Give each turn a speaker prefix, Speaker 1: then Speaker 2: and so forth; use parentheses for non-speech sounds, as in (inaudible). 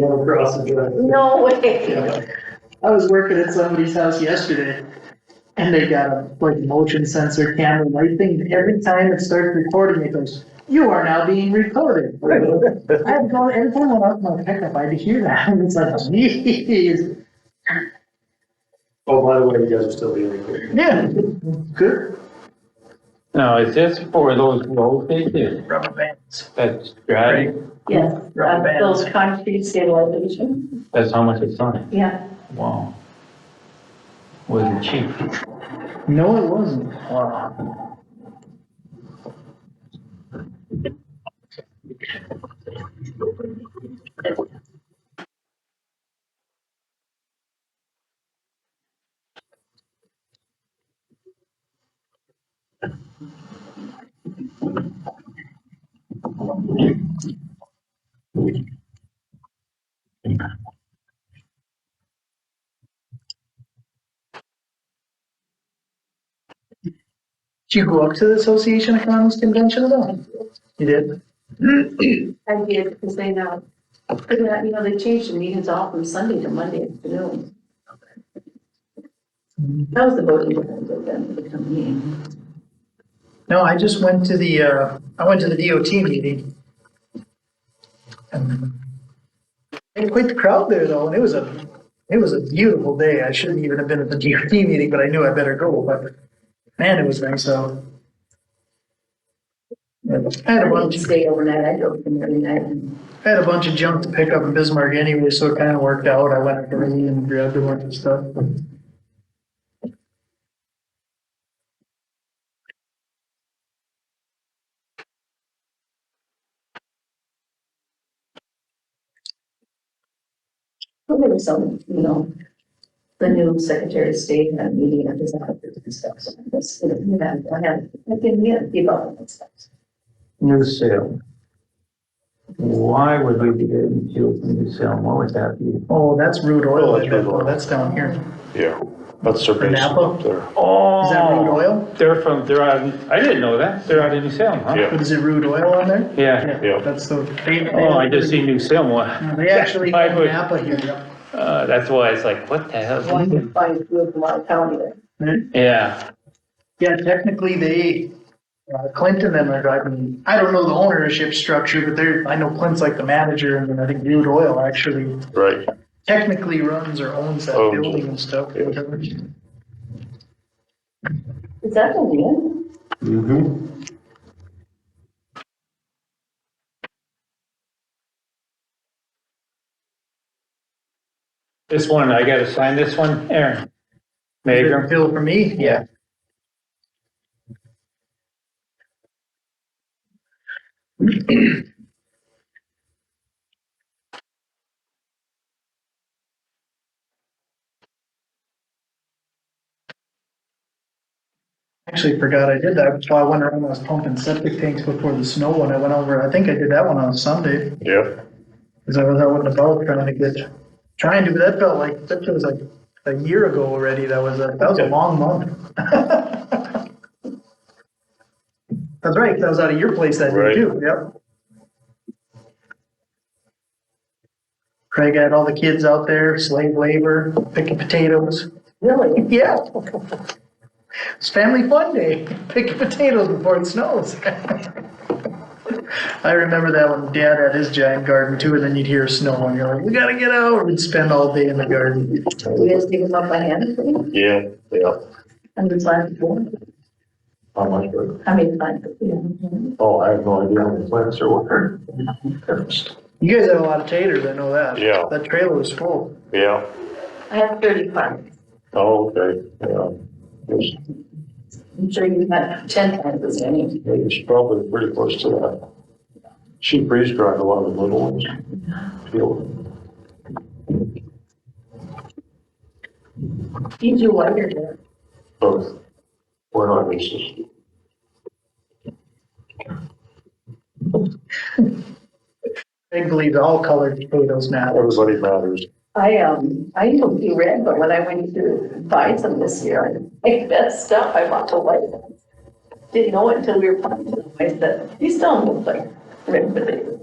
Speaker 1: go across the driveway.
Speaker 2: No way.
Speaker 1: Yeah. I was working at somebody's house yesterday and they got a like motion sensor camera light thing. Every time it starts recording, it goes, you are now being recorded. I had to go, every time I went out my pickup, I had to hear that. (laughs) And it's like, geez.
Speaker 3: Oh, by the way, you guys are still being recorded.
Speaker 1: Yeah, good.
Speaker 4: No, is this for those road issues
Speaker 1: Rubber bands.
Speaker 4: that's driving?
Speaker 2: Yes,
Speaker 1: Rubber
Speaker 2: uh, those
Speaker 1: bands.
Speaker 2: concrete stabilization,
Speaker 4: That's how much it's on?
Speaker 2: yeah.
Speaker 4: Wow. Wasn't cheap.
Speaker 1: No, it wasn't.
Speaker 4: Wow.
Speaker 1: Did you go up to the Association of Commons Convention at all? You did?
Speaker 2: I did, because they know, yeah, you know, they changed the meetings off from Sunday to Monday afternoon. That was the voting that I did for the company.
Speaker 1: No, I just went to the, uh, I went to the DOT meeting. And they had quite the crowd there though, and it was a, it was a beautiful day. I shouldn't even have been at the DOT meeting, but I knew I better go, but man, it was nice out. I had
Speaker 2: I
Speaker 1: a
Speaker 2: didn't
Speaker 1: bunch,
Speaker 2: stay overnight, I drove from every night. and-
Speaker 1: I had a bunch of junk to pick up in Bismarck anyway, so it kind of worked out. I went up early and grabbed a bunch of stuff.
Speaker 2: Well, There was some, you know, the new Secretary of State had a meeting at his office and stuff, so I was, you know, I had, I didn't get people on that stuff.
Speaker 4: New sale. Why would we be getting fuel from new sale? What would that be?
Speaker 1: Oh, that's rude oil.
Speaker 3: Oh, that's Rude Oil.
Speaker 1: That's down here.
Speaker 3: Yeah, that's their
Speaker 1: For
Speaker 3: base
Speaker 1: Napa?
Speaker 3: up there.
Speaker 4: Oh.
Speaker 1: Is that rude oil?
Speaker 4: They're from, they're out, in- I didn't know that. They're out in New Salem, huh?
Speaker 3: Yeah.
Speaker 1: Is it rude oil on there?
Speaker 4: Yeah.
Speaker 3: Yeah.
Speaker 1: That's the. they- they-
Speaker 4: Oh, I just see New Salem. one.
Speaker 1: Uh, They actually
Speaker 4: I
Speaker 1: own
Speaker 4: would-
Speaker 1: Napa here.
Speaker 4: Uh, that's why it's like, what the hell?
Speaker 1: Mm-hmm.
Speaker 2: One can find good in our county there.
Speaker 4: Yeah.
Speaker 1: Yeah, technically they, uh, Clint and them are driving, I don't know the ownership structure, but they're, I know Clint's like the manager and then I think Rude Oil actually
Speaker 3: Right.
Speaker 1: technically runs or owns that
Speaker 3: Owns it.
Speaker 1: building and stuff. or whatever.
Speaker 2: Is that the end?
Speaker 3: Mm-hmm.
Speaker 4: This one, I gotta sign this one, Aaron. Magram.
Speaker 1: Bill for me? Yeah. (clears throat) Actually forgot I did that. That's why I went around, I was pumping septic tanks before the snow when I went over. I think I did that one on Sunday.
Speaker 3: Yep.
Speaker 1: Cause I was out with the boat trying to get, trying to, but that felt like, that was like a year ago already. That was a, that was a long month. (laughs) That's right, 'cause I was out of your place that day
Speaker 3: Right.
Speaker 1: too, yep. Craig had all the kids out there, slave labor, picking potatoes.
Speaker 2: Really?
Speaker 1: Yeah. It's family fun day, picking potatoes before it snows. (laughs) I remember that when dad had his giant garden too, and then you'd hear snow and you're like, we gotta get out, we'd spend all day in the garden.
Speaker 2: You guys give them up by hand, please?
Speaker 3: Yeah, yeah.
Speaker 2: I'm just glad for,
Speaker 3: I like it.
Speaker 2: I mean, like, you know.
Speaker 3: Oh, I have no idea how many plants are working.
Speaker 1: You guys had a lot of taters, I know that.
Speaker 3: Yeah.
Speaker 1: That trailer was full.
Speaker 3: (laughs) Yeah,
Speaker 2: I have thirty-five.
Speaker 3: oh, okay, yeah. It's,
Speaker 2: I'm sure you've had ten times as many.
Speaker 3: it's probably pretty close to that. She freeze dried a lot of the little ones. Feel
Speaker 2: You do wonder there.
Speaker 3: both. We're not racist.
Speaker 1: Craig believes all colored potatoes matter.
Speaker 3: Everybody matters.
Speaker 2: I, um, I don't do red, but when I went to buy some this year, I messed up, I bought the white ones. Didn't know it until we were planting them, I said, these don't look like red potatoes.